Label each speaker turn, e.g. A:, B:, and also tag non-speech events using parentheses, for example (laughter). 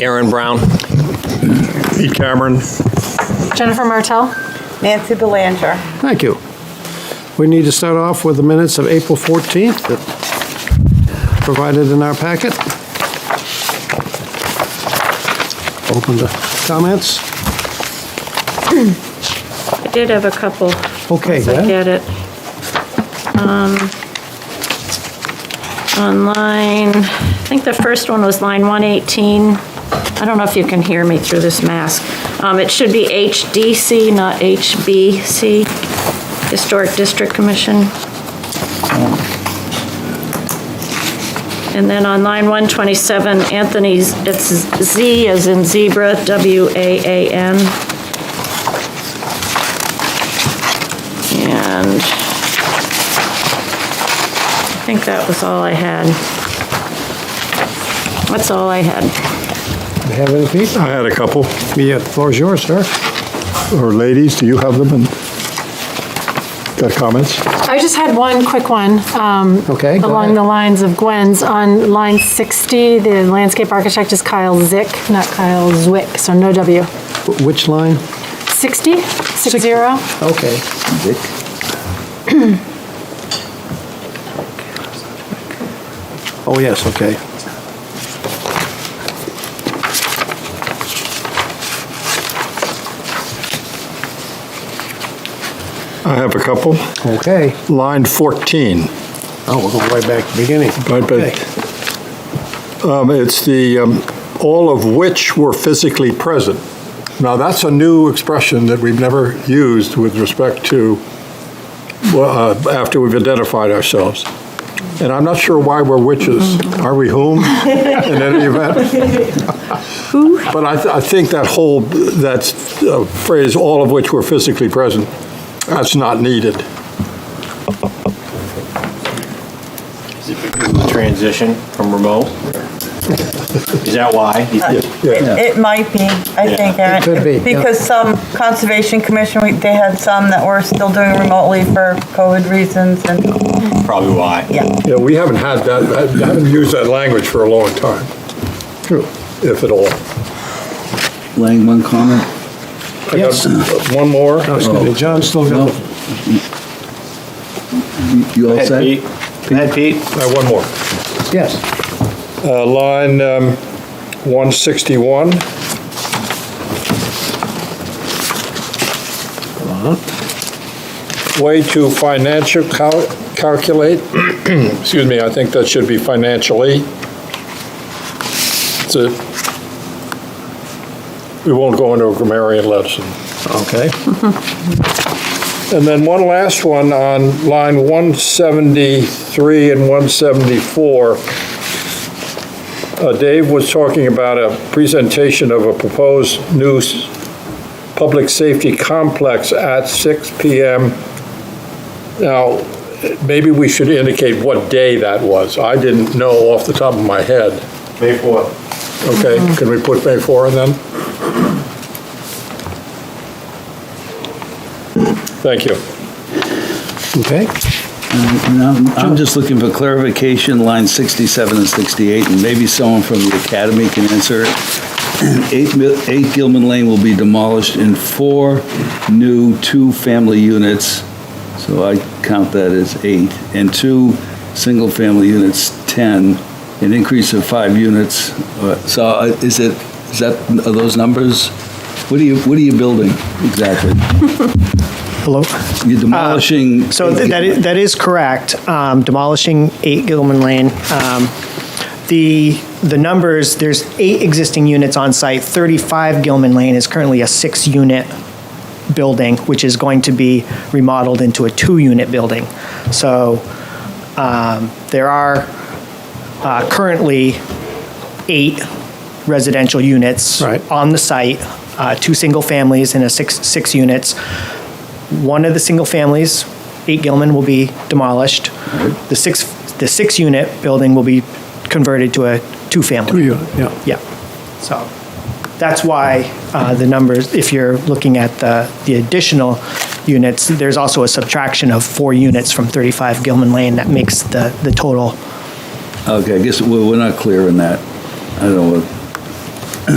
A: Aaron Brown.
B: Pete Cameron.
C: Jennifer Martell?
D: Nancy Belanger.
E: Thank you. We need to start off with the minutes of April 14th that provided in our packet. Open to comments?
F: I did have a couple.
E: Okay,
F: Once I
E: Glenn.
F: get it. Um, On line, I think the first one was line 118. I don't know if you can hear me through this mask. Um, It should be HDC, not HBC, Historic District Commission. And then on line 127, Anthony's, it's Z as in zebra, W-A-A-N. And I think that was all I had. That's all I had.
E: Do you have any, Pete?
B: I had a couple.
E: Yeah, the floor is yours, sir.
B: Or ladies, do you have them? And Got comments?
C: I just had one quick one. um,
E: Okay, go
C: Along
E: ahead.
C: the lines of Gwen's. On line 60, the landscape architect is Kyle Zick, not Kyle Zwick, so no W.
E: Wh- Which line?
C: 60? Six zero?
E: Okay. Oh, yes, okay.
B: I have a couple.
E: Okay.
B: Line 14.
E: Oh, we're going way back to the beginning.
B: Right,
E: Okay.
B: but um, it's the, um, all of which were physically present. Now, that's a new expression that we've never used with respect to, well, uh, after we've identified ourselves. And I'm not sure why we're witches. Are we whom in any event? But I, th- I think that whole, that uh, phrase, all of which were physically present, that's not needed.
A: Transition from remote. Is that why?
B: Yeah.
D: It might be, I think, Aaron.
E: It could be, yeah.
D: Because some Conservation Commission, we- they had some that were still doing remotely for COVID reasons and,
A: Probably why.
D: yeah.
B: Yeah, we haven't had that, I haven't used that language for a long time. True. If at all.
G: Lang, one comment?
B: I got One more.
E: No, Oh, excuse me, John's still
G: No?
E: got the
G: You- Oh. You all set?
A: Go ahead, Pete.
B: I have one more.
E: Yes.
B: Uh, Line um, 161, way to financial cal- calculate, (clears throat) excuse me, I think that should be financially. That's it. We won't go into a grammarian lesson.
E: Okay.
B: And then one last one on line 173 and 174. Uh, Dave was talking about a presentation of a proposed new s- public safety complex at 6 PM. Now, maybe we should indicate what day that was. I didn't know off the top of my head. May 4. Okay, can we put May 4 in then? Thank you.
E: Okay.
G: And I'm I'm just looking for clarification, line 67 and 68, and maybe someone from the academy can answer it. (clears throat) Eight Mil- 8 Gilman Lane will be demolished in four new two-family units, so I count that as eight, and two single-family units, 10, an increase of five units. Uh, So uh, is it, is that, are those numbers? What are you, what are you building exactly?
H: Hello.
G: You're demolishing.
H: Uh, So th- that is, that is correct. Um, demolishing eight Gilman Lane. Um, the the numbers there's eight existing units on site. Thirty five Gilman Lane is currently a six unit building, which is going to be remodeled into a two unit building. So um, there are uh, currently eight residential units
E: Right.
H: on the site, uh, two single families and a six six units. One of the single families, 8 Gilman, will be demolished. The six, the six-unit building will be converted to a
E: Two
H: two-family.
E: unit, yeah.
H: Yeah, so that's why uh, the numbers, if you're looking at the, the additional units, there's also a subtraction of four units from 35 Gilman Lane that makes the, the total
G: Okay, I guess we're we're not clear in that. I don't know,